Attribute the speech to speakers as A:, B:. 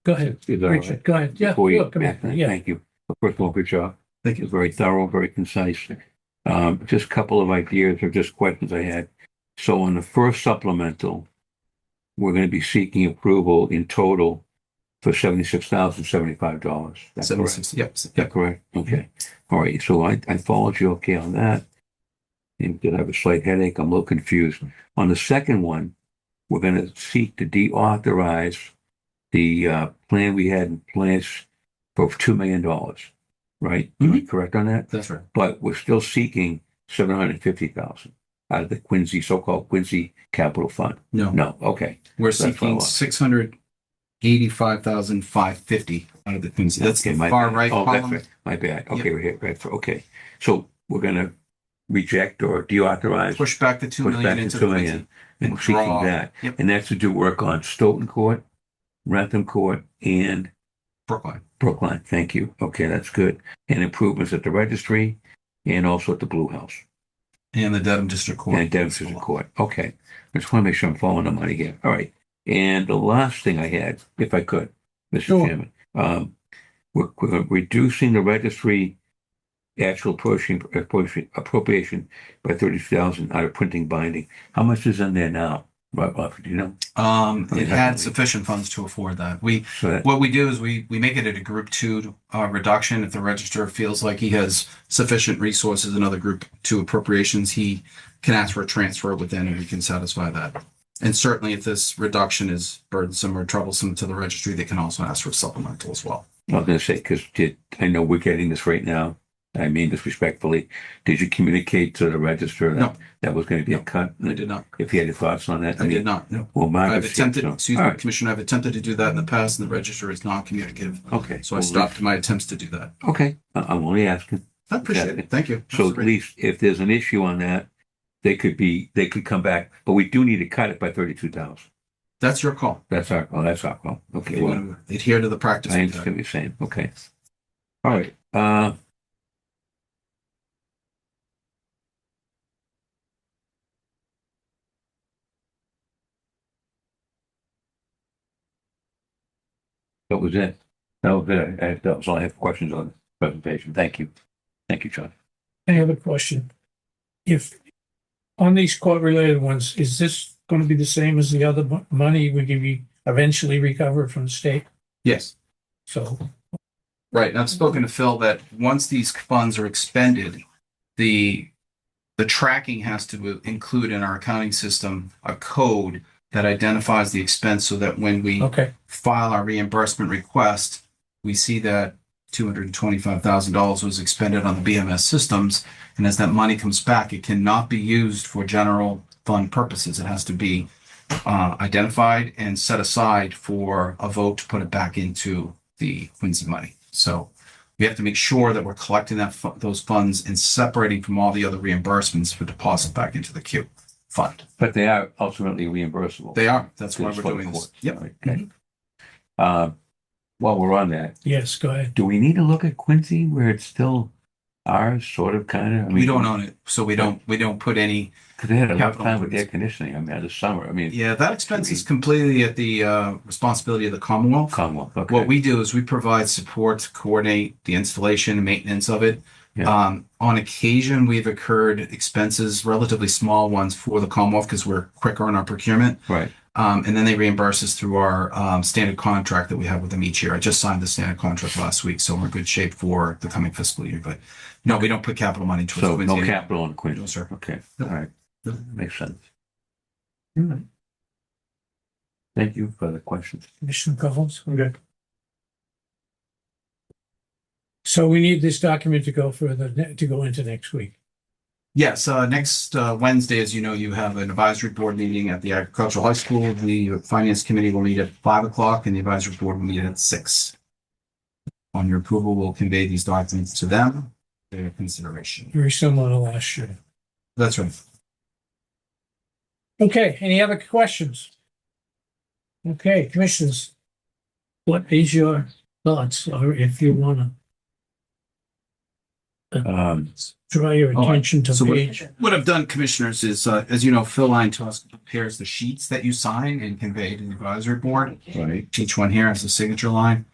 A: Go ahead,
B: Is that all
A: Richard,
B: right?
A: go ahead. Yeah,
B: Before you-
A: sure, come here. Yeah,
B: Thank you. First of all, good job. Thank you. Very thorough, very concise. Um, just a couple of ideas or just questions I had. So on the first supplemental, we're going to be seeking approval in total for seventy-six thousand seventy-five dollars. That's correct. Is
C: Seventy-six, yep, s-
B: that
C: yep.
B: correct? Okay. All right. So I, I followed you okay on that. And did have a slight headache. I'm a little confused. On the second one, we're going to seek to deauthorize the uh, plan we had in place for two million dollars, right? Am I correct on that?
C: That's right.
B: But we're still seeking seven hundred fifty thousand out of the Quincy, so-called Quincy Capital Fund.
C: No,
B: No, okay,
C: we're
B: that's what I
C: seeking
B: lost.
C: six hundred eighty-five thousand five fifty out of the Quincy. That's
B: Okay,
C: the
B: my
C: far
B: bad.
C: right
B: Oh, that's
C: column.
B: right. my bad. Okay, we're here, right, okay. So we're gonna reject or deauthorize.
C: Push back the two
B: Push back
C: million
B: the
C: into the
B: two
C: Quincy.
B: million. and
C: Withdraw.
B: seeking that.
C: Yep.
B: And that's to do work on Stoughton Court, Rantham Court, and
C: Brookline.
B: Brookline, thank you. Okay, that's good. And improvements at the registry and also at the Blue House
C: And the Dedham District Court.
B: and Dempster's Court. Okay. I just want to make sure I'm following the money here. All right. And the last thing I had, if I could, Mr.
A: Sure.
B: Chairman, um, we're, we're reducing the registry actual appropriation, appropriation- appropriation by thirty thousand out of printing binding. How much is in there now? Right, Bob, do you know?
C: Um,
B: Okay.
C: it had sufficient funds to afford that. We,
B: So that,
C: what we do is we, we make it at a group two, uh, reduction. If the register feels like he has sufficient resources in other group two appropriations, he can ask for a transfer within and we can satisfy that. And certainly if this reduction is burdensome or troublesome to the registry, they can also ask for a supplemental as well.
B: I was going to say, because did, I know we're getting this right now. I mean this respectfully. Did you communicate to the register
C: No.
B: that that was going to be a cut?
C: I did not,
B: If you had any thoughts on that?
C: I did
B: mean,
C: not, no.
B: Well,
C: I've
B: Margaret. said
C: attempted,
B: so.
C: excuse
B: All
C: me,
B: right,
C: Commissioner, I've attempted to do that in the past and the register is not communicative.
B: Okay.
C: So I
B: Well,
C: stopped my attempts to do that.
B: Okay, I- I'm only asking.
C: I appreciate it. Thank you.
B: So at least if there's an issue on that, they could be, they could come back, but we do need to cut it by thirty-two thousand.
C: That's your call.
B: That's our, oh, that's our call.
C: If
B: Okay,
C: you
B: well,
C: want to adhere to the practice.
B: I
C: of that.
B: understand what you're saying. Okay. All right, uh. That was it. That was it. I- That was all I have questions on the presentation. Thank you. Thank you, John.
A: I have a question. If, on these court related ones, is this going to be the same as the other mo- money we can be eventually recover from the state?
C: Yes,
A: So,
C: right. And I've spoken to Phil that once these funds are expended, the, the tracking has to include in our accounting system a code that identifies the expense so that when we
A: okay,
C: file our reimbursement request, we see that two hundred and twenty-five thousand dollars was expended on the BMS systems. And as that money comes back, it cannot be used for general fund purposes. It has to be uh, identified and set aside for a vote to put it back into the Quincy money. So we have to make sure that we're collecting that, fu- those funds and separating from all the other reimbursements for deposit back into the Q fund.
B: But they are ultimately reimbursable.
C: They are, that's why
B: It's
C: we're
B: for the
C: doing this.
B: court.
C: Yep. Mm-hmm.
B: Okay. Uh, While we're on that,
A: yes, go ahead.
B: do we need to look at Quincy where it's still ours, sort of, kind of?
C: We don't own it, so we don't, we don't put any
B: Because they had a rough
C: Capital
B: time with air
C: improvements.
B: conditioning, I mean, this summer, I mean,
C: Yeah, that expense is completely at the uh, responsibility of the Commonwealth.
B: Commonwealth,
C: What
B: okay.
C: we do is we provide support to coordinate the installation and maintenance of it.
B: Yeah.
C: Um, on occasion, we've incurred expenses, relatively small ones for the Commonwealth because we're quicker in our procurement.
B: Right,
C: Um, and then they reimburse us through our um, standard contract that we have with them each year. I just signed the standard contract last week, so we're in good shape for the coming fiscal year. But no, we don't put capital money towards
B: so no
C: Quincy.
B: capital on
C: No,
B: Quincy,
C: sir.
B: okay, all
C: No.
B: right,
C: No.
B: makes sense. All right. Thank you for the questions.
A: Commissioner Collins? Okay. So we need this document to go further, ne- to go into next week.
C: Yes, uh, next uh, Wednesday, as you know, you have an advisory board meeting at the agricultural high school. The finance committee will meet at five o'clock and the advisory board will meet at six. On your approval, we'll convey these documents to them, for their consideration.
A: Very similar to last year.
C: That's right.
A: Okay, any other questions? Okay, commissioners, what is your thoughts, or if you wanna?
B: Um,
A: draw your
C: Oh, I-
A: attention to
C: so what-
A: page.
C: What I've done, commissioners, is, uh, as you know, Phil Line to us prepares the sheets that you sign and convey to the advisory board.
B: right.
C: Each one here has a signature line.